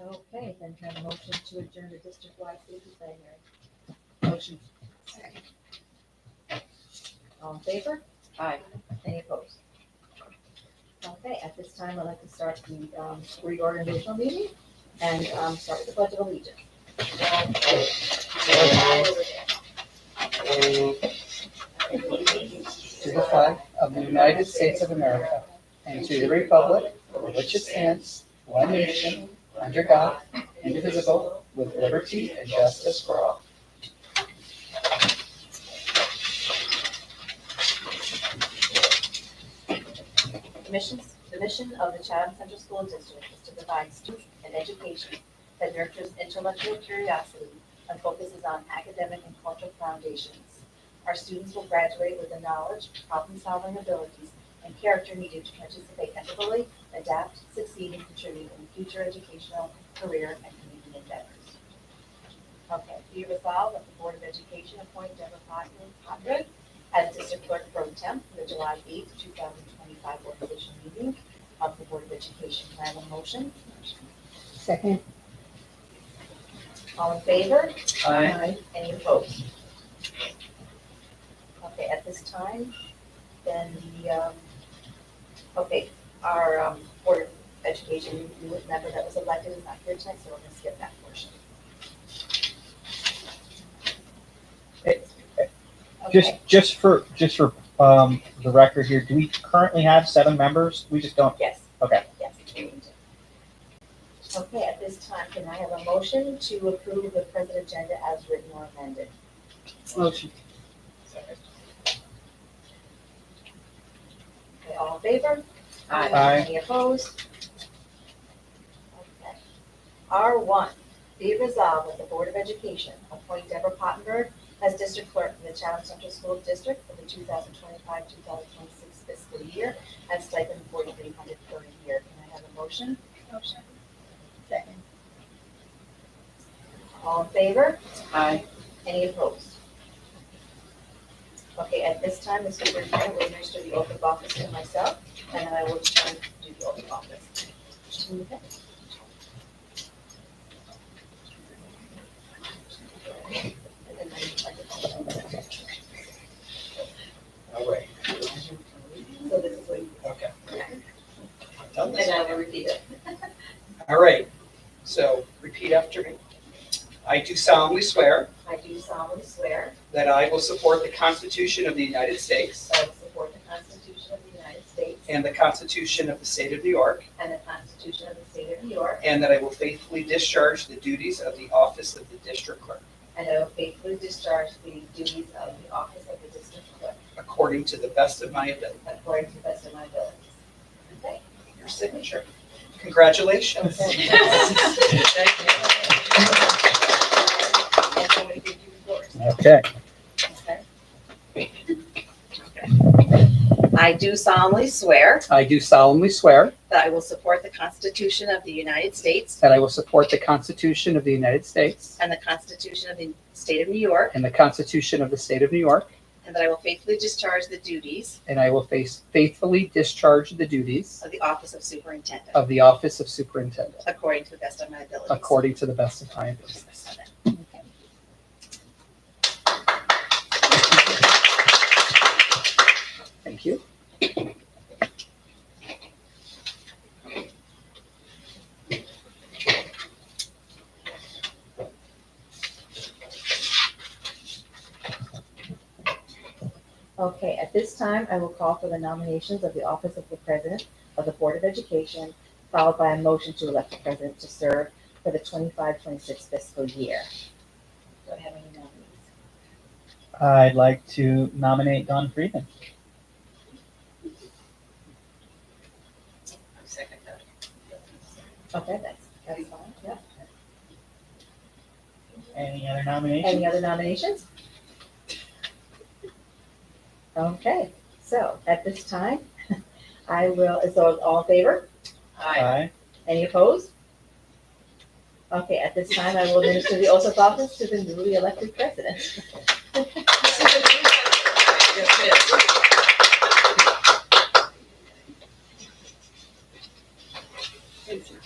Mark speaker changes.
Speaker 1: Okay, then can I have a motion to adjourn the district-wide food design hearing. Motion. All in favor?
Speaker 2: Aye.
Speaker 1: Any opposed? Okay, at this time, I'd like to start the um, reorganizational meeting and um, start with the budget allegiance.
Speaker 3: to the flag of the United States of America and to the republic for which it stands, one nation, under God, indivisible, with liberty and justice for all.
Speaker 1: The missions, the mission of the Chatham Central School District is to provide students an education that nurtures intellectual curiosity and focuses on academic and cultural foundations. Our students will graduate with the knowledge, problem-solving abilities, and character needed to participate ethically, adapt, succeed, and contribute in future educational, career, and community endeavors. Okay, be resolved that the Board of Education appoint Deborah Hodgman as District Clerk Pro Temp for the July eighth, two thousand twenty-five organization meeting of the Board of Education. Can I have a motion?
Speaker 3: Second.
Speaker 1: All in favor?
Speaker 3: Aye.
Speaker 1: Any opposed? Okay, at this time, then the, um, okay, our um, Board of Education new member that was elected is not here tonight, so we're gonna skip that portion. Okay,
Speaker 4: Just, just for, just for, um, the record here, do we currently have seven members? We just don't,
Speaker 1: yes.
Speaker 4: Okay.
Speaker 1: Yes. Okay, at this time, can I have a motion to approve the present agenda as written or amended?
Speaker 3: Motion.
Speaker 1: Okay, all in favor?
Speaker 2: Aye.
Speaker 4: Aye.
Speaker 1: Any opposed? Okay. R one, be it resolved that the Board of Education appoint Deborah Pottenberg as district clerk for the Chatham Central School District for the two thousand twenty-five, two thousand twenty-six fiscal year at stipend forty-three hundred per year. Can I have a motion? Motion. Second. All in favor?
Speaker 2: Aye.
Speaker 1: Any opposed? Okay, at this time, the superintendent will administer the oath of office to myself, and then I will return to do the oath of office.
Speaker 3: All right.
Speaker 1: So this is what you.
Speaker 3: Okay.
Speaker 2: And I will repeat it.
Speaker 3: All right. So repeat after me. I do solemnly swear
Speaker 1: I do solemnly swear
Speaker 3: that I will support the Constitution of the United States
Speaker 1: that I will support the Constitution of the United States
Speaker 3: and the Constitution of the State of New York,
Speaker 1: and the Constitution of the State of New York,
Speaker 3: and that I will faithfully discharge the duties of the office of the district clerk
Speaker 1: and I will faithfully discharge the duties of the office of the district clerk
Speaker 3: according to the best of my ability.
Speaker 1: according to the best of my abilities. Okay?
Speaker 3: Your signature. Congratulations.
Speaker 1: And I'm gonna give you yours.
Speaker 4: okay.
Speaker 2: I do solemnly swear
Speaker 3: I do solemnly swear
Speaker 2: that I will support the Constitution of the United States
Speaker 3: that I will support the Constitution of the United States
Speaker 2: and the Constitution of the State of New York,
Speaker 3: and the Constitution of the State of New York,
Speaker 2: and that I will faithfully discharge the duties
Speaker 3: and I will face- faithfully discharge the duties
Speaker 2: of the Office of Superintendent
Speaker 3: of the office of superintendent
Speaker 2: according to the best of my abilities.
Speaker 3: according to the best of my ability. Thank you.
Speaker 1: Okay, at this time, I will call for the nominations of the office of the president of the Board of Education, followed by a motion to elect the president to serve for the 25-26 fiscal year. Do I have any nominees?
Speaker 4: I'd like to nominate Don Freeman.
Speaker 2: Second that.
Speaker 1: Okay, that's, that's fine, yeah.
Speaker 4: Any other nominations?
Speaker 1: Any other nominations? Okay, so at this time, I will, so all in favor?
Speaker 2: Aye.
Speaker 4: Aye.
Speaker 1: Any opposed? Okay, at this time, I will administer the oath of office to the newly elected president.
Speaker 2: Yes, it is.